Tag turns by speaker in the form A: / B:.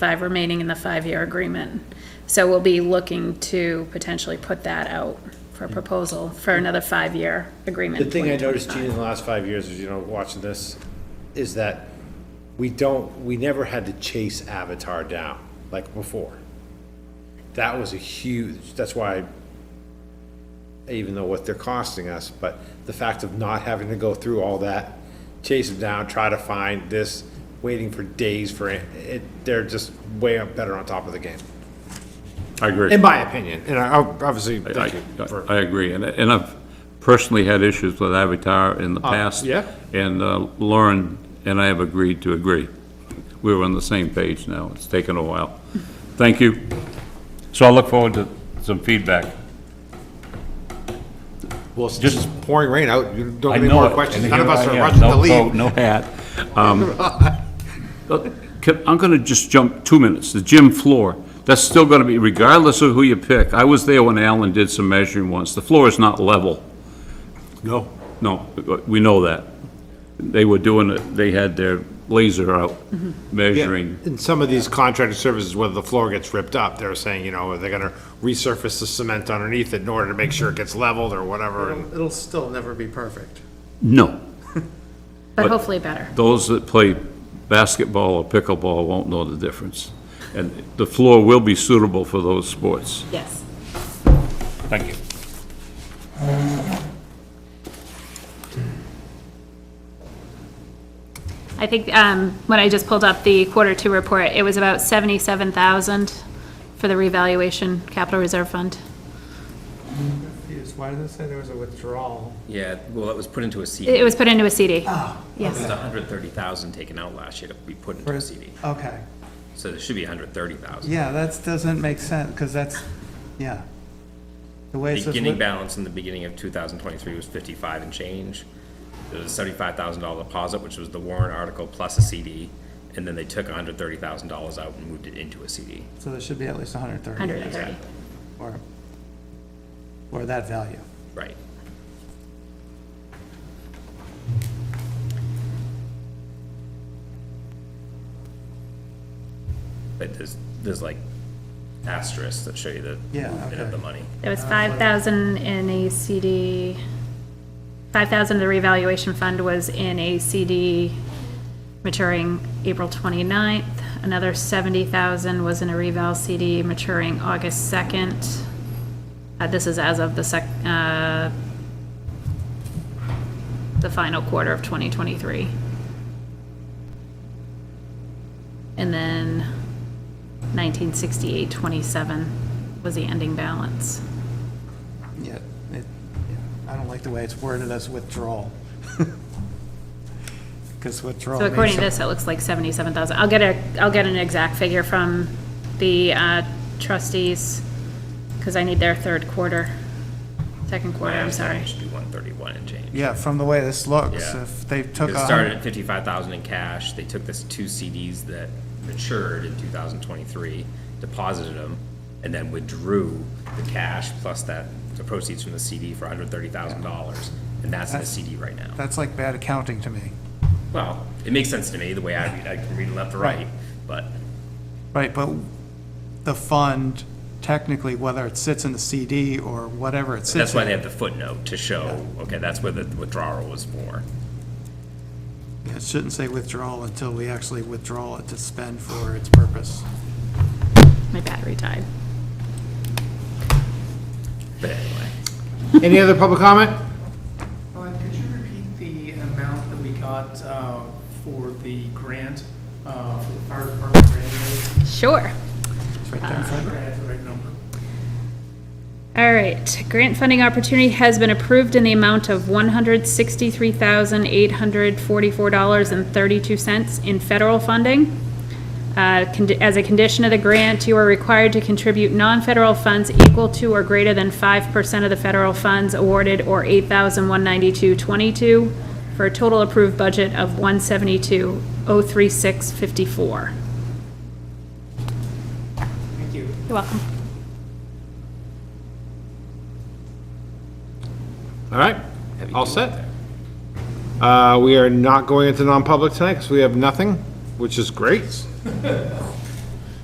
A: five remaining in the five-year agreement. So we'll be looking to potentially put that out for a proposal for another five-year agreement.
B: The thing I noticed, Gene,
A: 2025.
B: in the last five years, as you know, watching this, is that we don't, we never had to chase Avatar down like before. That was a huge, that's why, I even know what they're costing us, but the fact of not having to go through all that, chase them down, try to find this, waiting for days for it, it- they're just way up better on top of the game,
C: I agree.
B: in my opinion, and I, obviously, thank
C: I,
B: you for.
C: I agree, and, and I've personally had issues with Avatar in the past.
B: Uh, yeah.
C: And uh, Lauren and I have agreed to agree. We're on the same page now, it's taken a while. Thank you. So I'll look forward to some feedback.
B: Well, it's just pouring rain out, you don't
C: I
B: have any
C: know
B: more
C: it,
B: questions,
C: and
B: none of
C: here
B: us
C: I
B: are
C: am,
B: rushing
C: no
B: to leave.
C: coat, No hat. Um, can- I'm gonna just jump two minutes, the gym floor, that's still gonna be, regardless of who you pick, I was there when Alan did some measuring once, the floor is not level.
B: No.
C: No, we know that. They were doing it, they had their laser out measuring.
B: In some of these contracted services, whether the floor gets ripped up, they're saying, you know, they're gonna resurface the cement underneath it in order to make sure it gets leveled or whatever. and-
D: It'll it'll still never be perfect.
C: No,
A: But hopefully better.
C: those that play basketball or pickleball won't know the difference. And the floor will be suitable for those sports.
A: Yes.
C: Thank you.
A: I think, um, when I just pulled up the quarter two report, it was about seventy-seven thousand for the revaluation capital reserve fund.
D: Confused. Why does it say there was a withdrawal?
E: Yeah, well, it was put into a CD.
A: It was put into a CD.
B: Ah,
E: There's
A: Yes.
E: a hundred thirty thousand taken out last year to be put into a CD,
D: Okay,
E: so there should be a hundred thirty thousand.
D: yeah, that doesn't make sense, because that's, yeah. The way it says.
E: Beginning
D: wi-
E: balance in the beginning of two thousand twenty-three was fifty-five and change. There was a seventy-five thousand dollar deposit, which was the warrant article plus a CD, and then they took a hundred thirty thousand dollars out and moved it into a CD.
D: So there should be at least hundred and thirty.
A: Hundred and thirty.
D: Or, or that value.
E: Right. But there's, there's like asterisks that show you the
D: Yeah,
E: movement
D: okay.
E: of the money.
A: There was five thousand in a CD, five thousand of the revaluation fund was in a CD maturing April 29th. Another seventy thousand was in a reval CD maturing August second. Uh, this is as of the sec, uh, the final quarter of twenty twenty-three. And then 1968-27 was the ending balance.
D: Yeah, it, yeah. I don't like the way it's worded as withdrawal. Because withdrawal.
A: So
D: means
A: according to
D: some-
A: this, it looks like 77,000. I'll get a, I'll get an exact figure from the uh, trustees, because I need their third quarter, second quarter, I'm sorry.
E: It should be one thirty-one and change.
D: Yeah, from the way this looks,
E: Yeah.
D: if they took
E: It
D: a. hun-
E: started at fifty-five thousand in cash, they took this two CDs that matured in two thousand twenty-three, deposited them, and then withdrew the cash plus that, the proceeds from the CD for hundred thirty thousand dollars, and that's in the CD right now.
D: That's like bad accounting to me.
E: Well, it makes sense to me, the way I read, I can read it left to right,
D: Right.
E: but
D: Right, but the fund, technically, whether it sits in the CD or whatever it
E: that's
D: sits
E: why
D: in,
E: they have the footnote to show, okay, that's where the withdrawal was for.
D: it shouldn't say withdrawal until we actually withdraw it to spend for its purpose.
A: My battery died.
E: But anyway,
B: Any other public comment?
F: Uh, Could you repeat the amount that we got uh, for the grant, uh, for the fire department grant?
A: Sure.
F: I'm sure I have the right number.
A: All right, grant funding opportunity has been approved in the amount of $163,844.32 in federal funding. Uh, condi- As a condition of the grant, you are required to contribute non-federal funds equal to or greater than 5% of the federal funds awarded or $8,192.22 for a total approved budget of $172,036.54.
F: Thank you.
A: You're welcome.
B: All right, all set. Uh, we are not going into non-public tonight, because we have nothing, which is great.